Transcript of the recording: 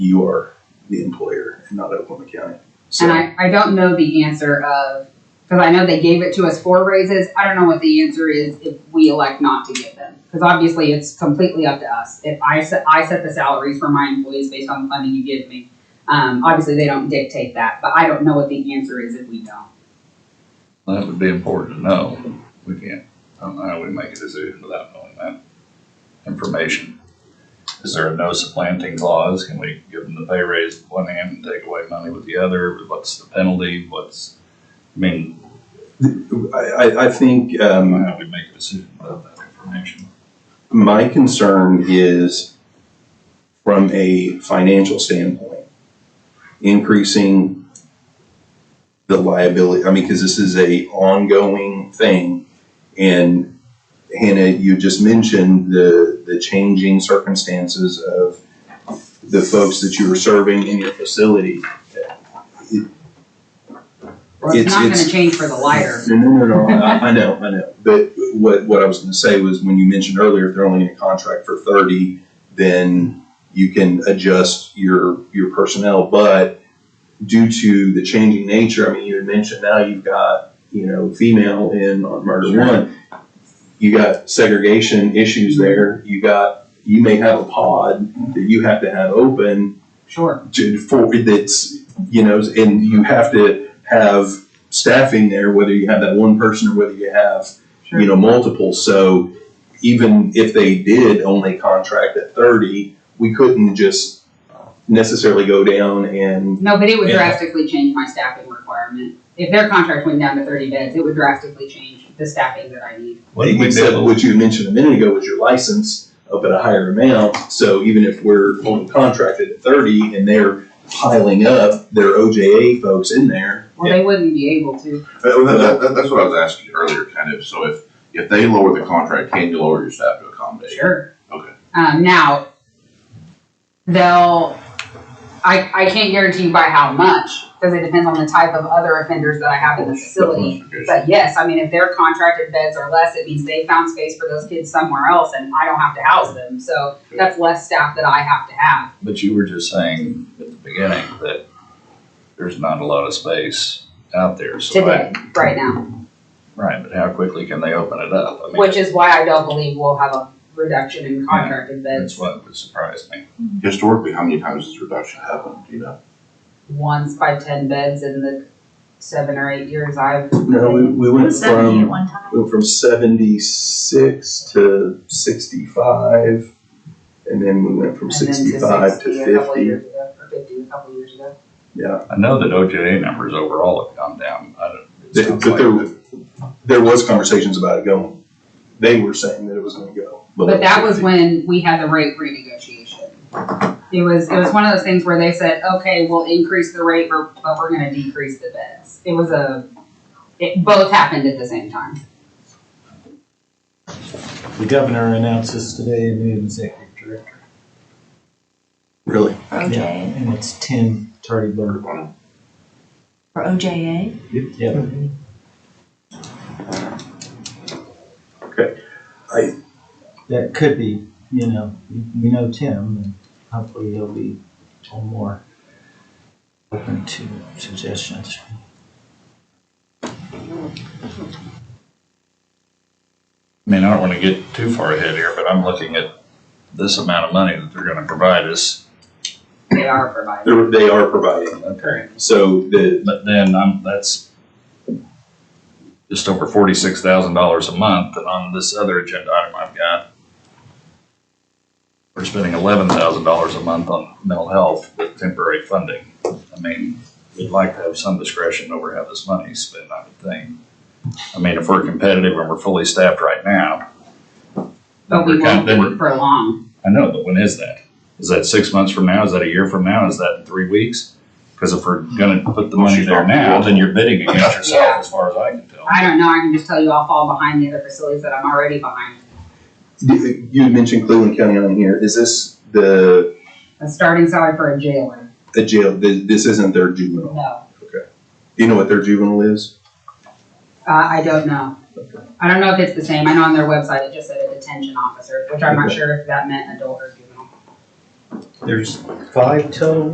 you are the employer and not Oklahoma County. So, And I, I don't know the answer of, because I know they gave it to us for raises. I don't know what the answer is if we elect not to give them. Because obviously it's completely up to us. If I set, I set the salaries for my employees based on the funding you give me. Um, obviously they don't dictate that, but I don't know what the answer is if we don't. That would be important to know. We can't, I don't know how we make a decision without knowing that information. Is there a no supplanting clause? Can we give them the pay raise with one hand and take away money with the other? What's the penalty? What's, I mean, I, I, I think, I don't um, know how we make a decision without that information. my concern is from a financial standpoint, increasing the liability, I mean, because this is a ongoing thing. And Hannah, you just mentioned the, the changing circumstances of the folks that you were serving in your facility. Or it's It's- not gonna it's- change for the lighter. No, no, no, no, I, I know, I know, but what, what I was gonna say was, when you mentioned earlier, if they're only in a contract for thirty, then you can adjust your, your personnel, but due to the changing nature, I mean, you had mentioned now you've got, you know, female in on murder Sure. one. You got segregation issues there, you got, you may have a pod that you have to have open, Sure. to, for, that's, you know, and you have to have staffing there, whether you have that one person or whether you have, you know, multiple. So even if they did only contract at thirty, we couldn't just necessarily go down and, No, but it would Yeah. drastically change my staffing requirement. If their contract went down to thirty beds, it would drastically change the staffing that I need. What do we except do? what you mentioned a minute ago was your license up at a higher amount. So even if we're only contracted at thirty and they're piling up their OJA folks in there. Well, they wouldn't be able to. That- that- that- that's what I was asking you earlier, kind of, so if, if they lower the contract, can you lower your staff to accommodate? Sure. Okay. Um, now, they'll, I, I can't guarantee you by how much, because it depends on the type of other offenders that I have in the facility. But yes, I mean, if their contracted beds are less, it means they found space for those kids somewhere else and I don't have to house them. So that's less staff that I have to have. But you were just saying at the beginning that there's not a lot of space out there, so I- Today, right now, Right, but how quickly can they open it up? I mean, which is why I don't believe we'll have a reduction in contracted That's beds what would surprise me. Historically, how many times has reduction happened, do you know? once by ten beds in the seven or eight years I've. No, we, we It went was seventy from. at one time. went from 76 to 65 and then we went from and then to 65 60 to a couple 50 years ago, Or fifty a couple years ago. yeah I know that OJA numbers overall have gone down. I don't. it They- sounds but like there- that- there was conversations about it going they were saying that it was going to go below But that was 60. when we had the rate renegotiation. It was, it was one of those things where they said, okay, we'll increase the rate, but but we're gonna decrease the beds. It was a, it both happened at the same time. The governor announced this today, a new executive director. really Yeah, OJ, And it's Tim Tardy or OJA? Yep. Okay. I- That could be, you know, we know Tim, and hopefully he'll be a little more open to suggestions. I mean, I don't wanna get too far ahead here, but I'm looking at this amount of money that they're gonna provide us. They are provided. they're- they are providing Okay. so the But then I'm, that's just over forty-six thousand dollars a month, and on this other agenda item I've got, we're spending eleven thousand dollars a month on mental health with temporary funding. I mean, we'd like to have some discretion over how this money's spent, I would think. I mean, if we're competitive and we're fully staffed right now. But we we're kind- won't then be we're- for long. I know, but when is that? Is that six months from now? Is that a year from now? Is that in three weeks? Because if we're gonna put the money there now, then you're bidding against yourself, as far as I can tell. I don't know, I can just tell you I'll fall behind the other facilities that I'm already behind. you had mentioned Cleveland County on here is this the A starting salary for a jailer, a jail this, this isn't their juvenile no. do you know what their juvenile is Uh, I don't know. I don't know if it's the same. I know on their website it just said a detention officer, which I'm not Okay. sure if that meant adult or juvenile. There's five total